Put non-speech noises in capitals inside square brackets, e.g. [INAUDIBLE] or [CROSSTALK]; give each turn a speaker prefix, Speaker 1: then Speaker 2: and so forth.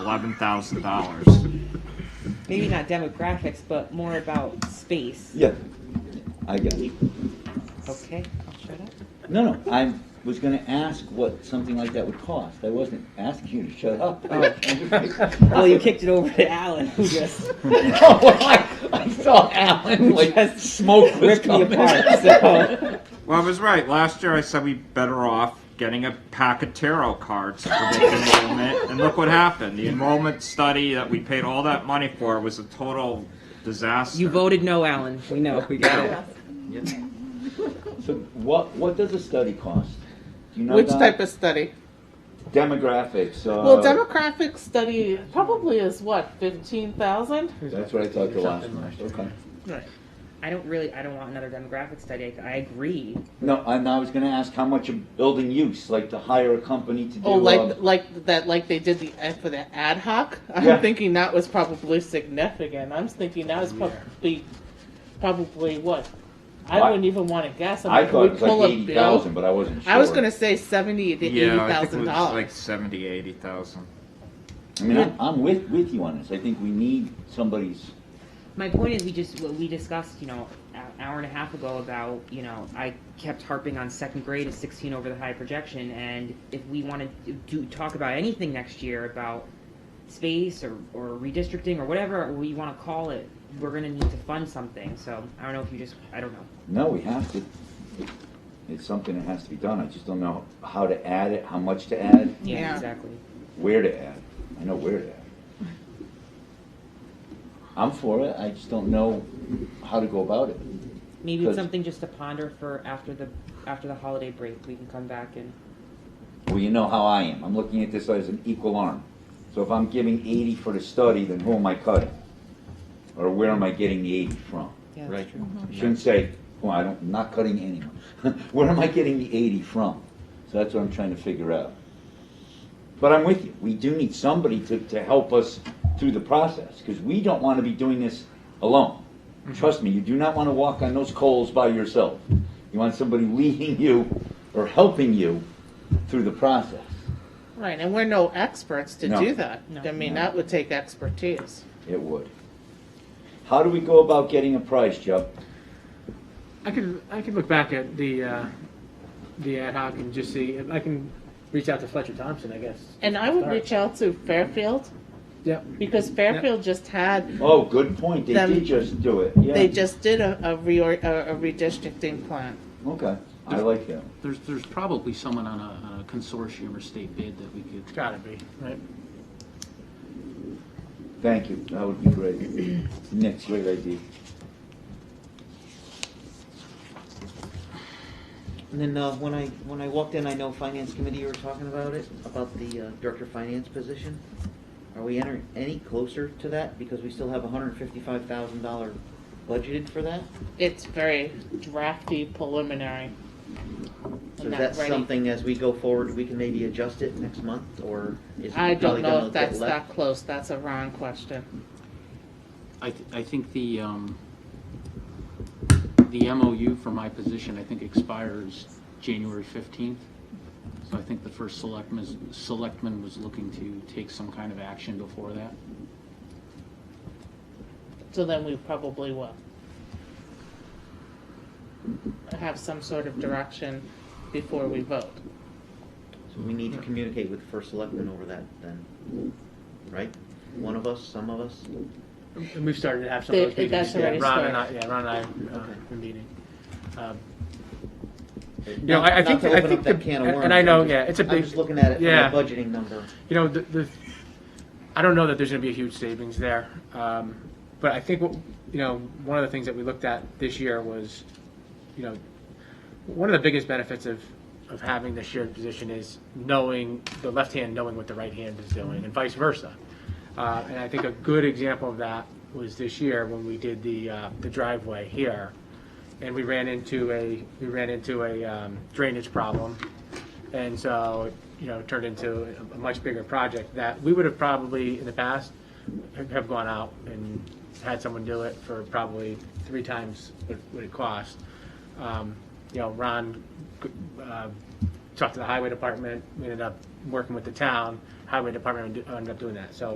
Speaker 1: eleven thousand dollars.
Speaker 2: Maybe not demographics, but more about space.
Speaker 3: Yeah, I got it.
Speaker 2: Okay, I'll shut up.
Speaker 3: No, no, I was gonna ask what something like that would cost. I wasn't asking you to shut up.
Speaker 4: Oh.
Speaker 3: [LAUGHS]
Speaker 2: Well, Oh, you kicked it over to Alan, [LAUGHS] who just
Speaker 3: Oh, well, I, I saw Alan like
Speaker 2: Just
Speaker 3: smoke was
Speaker 2: ripped me
Speaker 3: coming.
Speaker 2: apart, [LAUGHS] so.
Speaker 1: Well, I was right. Last year I said we better off getting a pack of tarot cards for the enrollment, and look what happened. The enrollment study that we paid all that money for was a total disaster.
Speaker 2: You voted no, Alan, we know, we got it.
Speaker 3: [LAUGHS] So what, what does a study cost? Do you know
Speaker 4: Which
Speaker 3: that?
Speaker 4: type of study?
Speaker 3: Demographics, uh.
Speaker 4: well, demographic study probably is what fifteen thousand. Oh,
Speaker 3: That's what I thought the last one, okay.
Speaker 2: I don't really, I don't want another demographic study, I agree.
Speaker 3: No, and I was gonna ask how much a building use, like to hire a company to do.
Speaker 4: Oh,
Speaker 3: um,
Speaker 4: like like that, like they did the ad for the ad hoc. I'm
Speaker 3: Yeah.
Speaker 4: thinking that was probably significant. I'm thinking that was probably probably what. I
Speaker 3: Well, I-
Speaker 4: wouldn't even want to guess. I'm
Speaker 3: I
Speaker 4: like,
Speaker 3: thought it
Speaker 4: we
Speaker 3: was like
Speaker 4: pull a
Speaker 3: eighty
Speaker 4: bill.
Speaker 3: thousand, but I wasn't sure.
Speaker 4: I was gonna say seventy to
Speaker 1: yeah,
Speaker 4: eighty
Speaker 1: I think it
Speaker 4: thousand
Speaker 1: was like
Speaker 4: dollars.
Speaker 1: seventy, eighty thousand.
Speaker 3: I mean, I'm, I'm with, with you on this. I think we need somebody's,
Speaker 2: My point is, we just, what we discussed, you know, an hour and a half ago about, you know, I kept harping on second grade is sixteen over the high projection, and if we wanna do- do, talk about anything next year about space or, or redistricting or whatever we wanna call it, we're gonna need to fund something, so I don't know if you just, I don't know.
Speaker 3: no, we have to. It's something that has to be done. I just don't know how to add it, how much to add,
Speaker 4: Yeah.
Speaker 2: Exactly.
Speaker 3: where to add. I know where to add. I'm for it. I just don't know how to go about it.
Speaker 2: Maybe it's
Speaker 3: Good.
Speaker 2: something just to ponder for after the, after the holiday break, we can come back and,
Speaker 3: Well, you know how I am. I'm looking at this as an equal arm. So if I'm giving eighty for the study, then who am I cutting? Or where am I getting the eighty from?
Speaker 2: yeah.
Speaker 5: Right.
Speaker 1: Mm-hmm.
Speaker 3: I shouldn't say, well, I don't, I'm not cutting anyone. [LAUGHS] Where am I getting the eighty from? So that's what I'm trying to figure out. But I'm with you. We do need somebody to, to help us through the process, because we don't want to be doing this alone. Trust me, you do not want to walk on those coals by yourself. You want somebody leading you or helping you through the process.
Speaker 4: Right, and we're no experts to
Speaker 3: No.
Speaker 4: do that.
Speaker 2: No.
Speaker 4: I mean,
Speaker 3: No.
Speaker 4: that would take expertise.
Speaker 3: It would. How do we go about getting a price, Joe?
Speaker 6: I could I could look back at the uh, the ad hoc and just see. I can reach out to Fletcher Thompson, I guess.
Speaker 4: And I would
Speaker 6: Start.
Speaker 4: reach out to Fairfield
Speaker 6: Yep.
Speaker 4: because Fairfield just had
Speaker 3: Oh, good point. They
Speaker 4: Them-
Speaker 3: did just do it, yeah.
Speaker 4: They just did a, a reor, a, a redistricting plan.
Speaker 3: Okay, I like that.
Speaker 5: There's, there's probably someone on a, on a consortium or state bid that we could.
Speaker 6: Gotta be right.
Speaker 3: Thank you, that would be great. Next, great idea.
Speaker 7: And then uh, when I, when I walked in, I know Finance Committee, you were talking about it, about the uh, Director of Finance position. Are we entering any closer to that? Because we still have hundred and fifty-five thousand dollar budgeted for that?
Speaker 4: It's very drafty preliminary.
Speaker 7: So
Speaker 4: I'm
Speaker 7: is
Speaker 4: not
Speaker 7: that
Speaker 4: ready.
Speaker 7: something as we go forward, we can maybe adjust it next month, or is it
Speaker 4: I don't
Speaker 7: probably gonna
Speaker 4: know if
Speaker 7: get
Speaker 4: that's
Speaker 7: left?
Speaker 4: that close, that's a Ron question.
Speaker 5: I, th- I think the, um, the MOU for my position, I think expires January fifteenth. So I think the first selectman, is- selectman was looking to take some kind of action before that.
Speaker 4: So then we probably will. Have some sort of direction before we vote.
Speaker 7: So we need to communicate with the first selectman over that then, right? One of us, some of us?
Speaker 6: And we've started to have some of those
Speaker 4: They-
Speaker 6: meetings.
Speaker 4: that's already
Speaker 6: yeah, Ron and I,
Speaker 4: started.
Speaker 6: yeah, Ron and I uh,
Speaker 7: Okay.
Speaker 6: are meeting. Um,
Speaker 7: You
Speaker 6: know, I- I think- I think the- and- and I know, yeah, it's a
Speaker 7: I'm
Speaker 6: big-
Speaker 7: just looking at it from
Speaker 6: yeah.
Speaker 7: a budgeting number.
Speaker 6: you know, the, the I don't know that there's going to be a huge savings there, um, but I think what you know, one of the things that we looked at this year was, you know, one of the biggest benefits of of having the shared position is knowing the left hand knowing what the right hand is doing, and vice versa. Uh, and I think a good example of that was this year when we did the uh, the driveway here, and we ran into a we ran into a um, drainage problem, and so you know it turned into a, a much bigger project that we would have probably in the past have- have gone out and had someone do it for probably three times what, what it cost. Um, you know, Ron uh, talked to the highway department. We ended up working with the town. Highway department ended up doing that. So